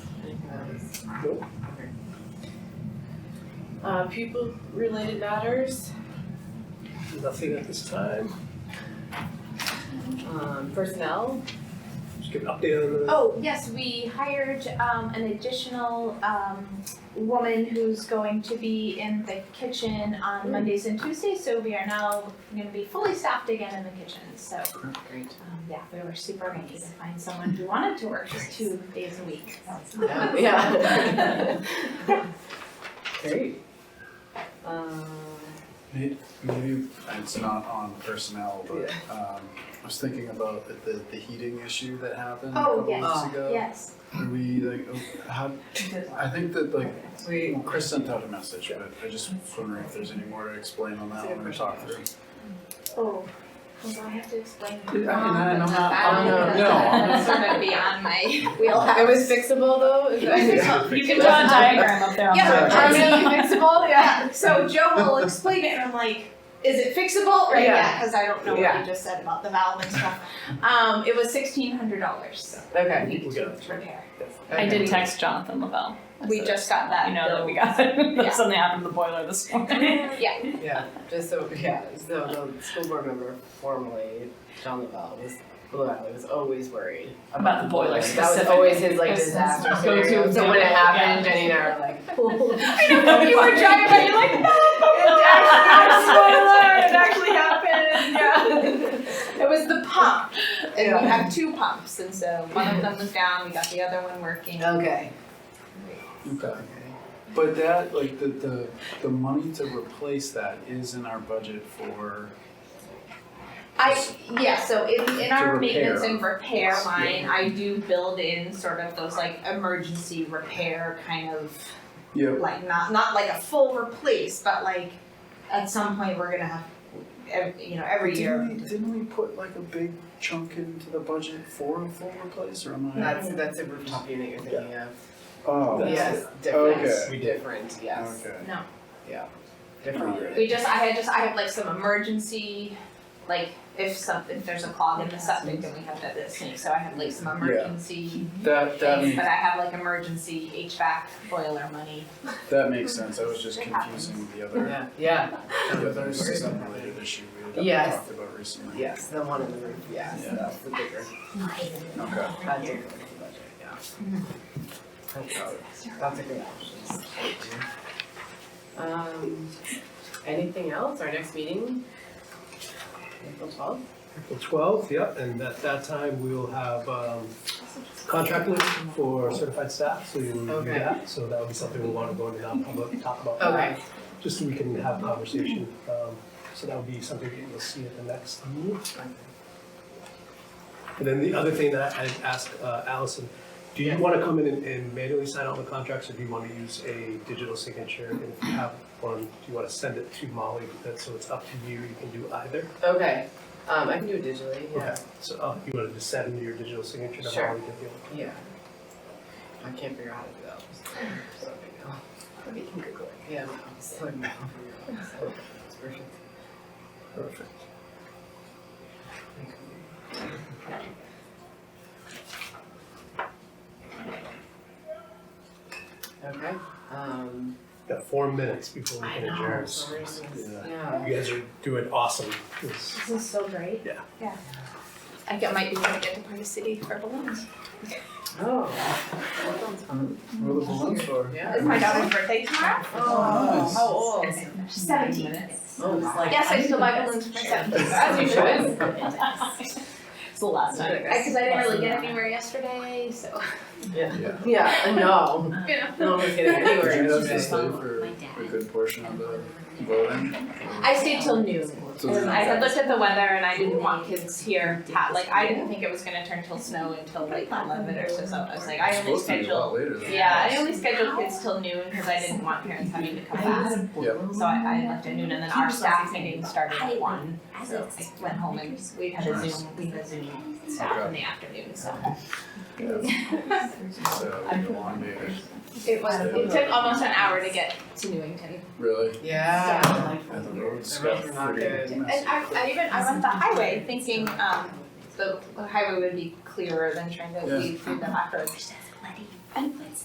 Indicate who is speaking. Speaker 1: Nope.
Speaker 2: Uh, pupil related matters,
Speaker 1: Nothing at this time.
Speaker 2: um, personnel,
Speaker 1: Just give an update on the.
Speaker 3: Oh, yes, we hired um an additional um woman who's going to be in the kitchen on Mondays and Tuesdays, so we are now gonna be fully staffed again in the kitchen, so.
Speaker 2: great.
Speaker 3: Um yeah, we were super lucky to find someone who wanted to work just two days a week.
Speaker 2: Yeah. Great. Um,
Speaker 4: Maybe it's not on personnel, but um, I was thinking about the- the, the heating issue that happened a
Speaker 3: Oh,
Speaker 4: couple
Speaker 3: yes.
Speaker 4: weeks ago.
Speaker 3: Yes,
Speaker 4: Are we like, oh, how, I think that like,
Speaker 2: we,
Speaker 4: well, Chris sent out a message, but I just wondering if there's any more to explain on that one or talk through.
Speaker 3: oh, well, do I have to explain.
Speaker 4: Yeah, I mean, I- I'm not-
Speaker 2: I'm not-
Speaker 4: no, I'm
Speaker 2: not-
Speaker 3: Sort of beyond my wheelhouse.
Speaker 2: it was fixable though, is that-
Speaker 3: You can
Speaker 4: Fixable.
Speaker 3: draw a diagram.
Speaker 5: up there on
Speaker 3: Yeah,
Speaker 4: Sorry.
Speaker 3: I mean, fixable, yeah. So Joe will explain it, and I'm like, is it fixable? Right, yeah, because I don't know what
Speaker 2: Yeah.
Speaker 3: you just said about the valve and stuff. Um, it was sixteen hundred dollars
Speaker 2: okay.
Speaker 1: People get it.
Speaker 3: to repair.
Speaker 5: I did text Jonathan Lavelle.
Speaker 3: We just got that.
Speaker 5: You know that we
Speaker 3: bill.
Speaker 5: got it.
Speaker 3: Yeah.
Speaker 5: Something happened to the boiler this morning.
Speaker 3: Yeah,
Speaker 2: Yeah, just so, yeah, so the school board member formerly, John Lavelle, was, Blue Valley was always worried
Speaker 5: About the boiler
Speaker 2: That was
Speaker 5: specifically.
Speaker 2: always his like
Speaker 5: His
Speaker 2: disaster
Speaker 5: go-to
Speaker 2: scenario, so when it
Speaker 5: example,
Speaker 2: happened,
Speaker 5: yeah.
Speaker 2: Jenny and I were like,
Speaker 3: I know you were driving, but you're like, no, it actually happened. It actually happened. Yeah, it was the pump, and
Speaker 2: Yeah.
Speaker 3: we have two pumps, and so one of them was down. We got the other one working.
Speaker 2: okay.
Speaker 4: Okay. But that, like, the, the, the money to replace that is in our budget for,
Speaker 3: I, yeah, so in, in
Speaker 4: To
Speaker 3: our
Speaker 4: repair.
Speaker 3: maintenance and repair
Speaker 4: Yeah.
Speaker 3: line, I do build in sort of those like emergency repair kind of,
Speaker 4: yeah,
Speaker 3: like not, not like a full replace, but like at some point, we're gonna have, ev- you know, every year.
Speaker 4: Didn't we, didn't we put like a big chunk into the budget for a full replace or am I?
Speaker 2: That's, that's a rooftop unit you're thinking of.
Speaker 4: Oh.
Speaker 2: Mm. Yes,
Speaker 4: Okay.
Speaker 2: different, different, yes,
Speaker 4: Okay.
Speaker 3: No.
Speaker 2: different
Speaker 4: Okay.
Speaker 2: unit.
Speaker 3: We just, I had just, I have like some emergency, like if something, if there's a clog in the septic, then we have that, this thing, so I have like some emergency
Speaker 4: That, that
Speaker 3: things,
Speaker 4: makes,
Speaker 3: but I have like emergency HVAC boiler money.
Speaker 4: that makes sense, I was just
Speaker 3: It
Speaker 4: confusing the other,
Speaker 2: Yeah, yeah,
Speaker 4: the other sub-related issue we had
Speaker 2: Yes.
Speaker 4: talked about recently.
Speaker 2: yes, the one in the roof, yes,
Speaker 4: Yeah.
Speaker 2: that's the bigger
Speaker 4: Okay.
Speaker 2: budget, budget, yeah. That's, that's a good option. Um, anything else, our next meeting? April twelfth?
Speaker 1: April twelfth, yeah, and at that time we will have um contract list for certified staff, so you'll review
Speaker 2: Okay.
Speaker 1: that. So that would be something we wanna go into non-public, talk about that.
Speaker 2: Okay,
Speaker 1: Just so we can have a conversation. Um so that would be something that you'll see at the next meeting. And then the other thing that I I'd asked uh, Allison, do you
Speaker 2: Yes.
Speaker 1: wanna come in and- and manually sign all the contracts or do you wanna use a digital signature? And if you have one, do you wanna send it to Molly? That's- So it's up to you, you can do either.
Speaker 2: okay, um, I can do it digitally, yeah,
Speaker 1: So uh, you wanna just send your digital signature to
Speaker 2: Sure.
Speaker 1: Molly? if you-
Speaker 2: yeah. I can't figure out how to do that, so, you know.
Speaker 3: We can Google it.
Speaker 2: Yeah, no, it's like, no, so, it's perfect.
Speaker 4: Perfect.
Speaker 2: Okay, um.
Speaker 1: Got four minutes before we
Speaker 2: I
Speaker 1: can
Speaker 2: know,
Speaker 1: adjourn.
Speaker 2: some reasons,
Speaker 4: Yeah.
Speaker 2: yeah.
Speaker 1: You guys are doing awesome. It's-
Speaker 3: This is so great.
Speaker 1: Yeah.
Speaker 3: Yeah. I get, might be gonna get to Party City for balloons.
Speaker 2: Oh,
Speaker 4: Roll the balloons for.
Speaker 2: yeah.
Speaker 3: It's my daughter's birthday tomorrow.
Speaker 4: Oh,
Speaker 5: how old?
Speaker 3: She's seventeen.
Speaker 2: Oh, wow.
Speaker 3: Yes, I still buy balloons for my seventeen, as you should.
Speaker 5: It's the last time.
Speaker 3: Because I didn't really get anywhere yesterday, so.
Speaker 4: Yeah.
Speaker 2: Yeah, I know.
Speaker 3: Yeah.
Speaker 2: No one's getting anywhere.
Speaker 4: Did you have to
Speaker 2: yesterday.
Speaker 4: stay for a good portion of the voting?
Speaker 3: I stayed till noon.
Speaker 4: So
Speaker 3: And I had looked at the weather and I didn't want kids here, ha- like, I didn't think it was gonna turn till snow until like eleven or so, so I was like, I only
Speaker 4: It's supposed to be a
Speaker 3: scheduled.
Speaker 4: lot later than
Speaker 3: Yeah,
Speaker 4: that.
Speaker 3: I only scheduled kids till noon because I didn't want parents having to come back.
Speaker 4: Yep.
Speaker 3: So I, I left at noon and then our staff meeting started at one. So I went home and we had a Zoom, we had a Zoom staff in the afternoon, so.
Speaker 4: So uh, elongated,
Speaker 3: It was, it took almost an hour to get to Newington.
Speaker 4: really?
Speaker 2: Yeah.
Speaker 4: And the roads
Speaker 2: The roads
Speaker 4: got
Speaker 2: are not
Speaker 4: pretty
Speaker 2: good.
Speaker 4: messy.
Speaker 3: And I, I even, I went the highway thinking, um, the highway would be clearer than trying to
Speaker 4: Yeah.
Speaker 3: weave through the back roads.
Speaker 6: Just
Speaker 3: And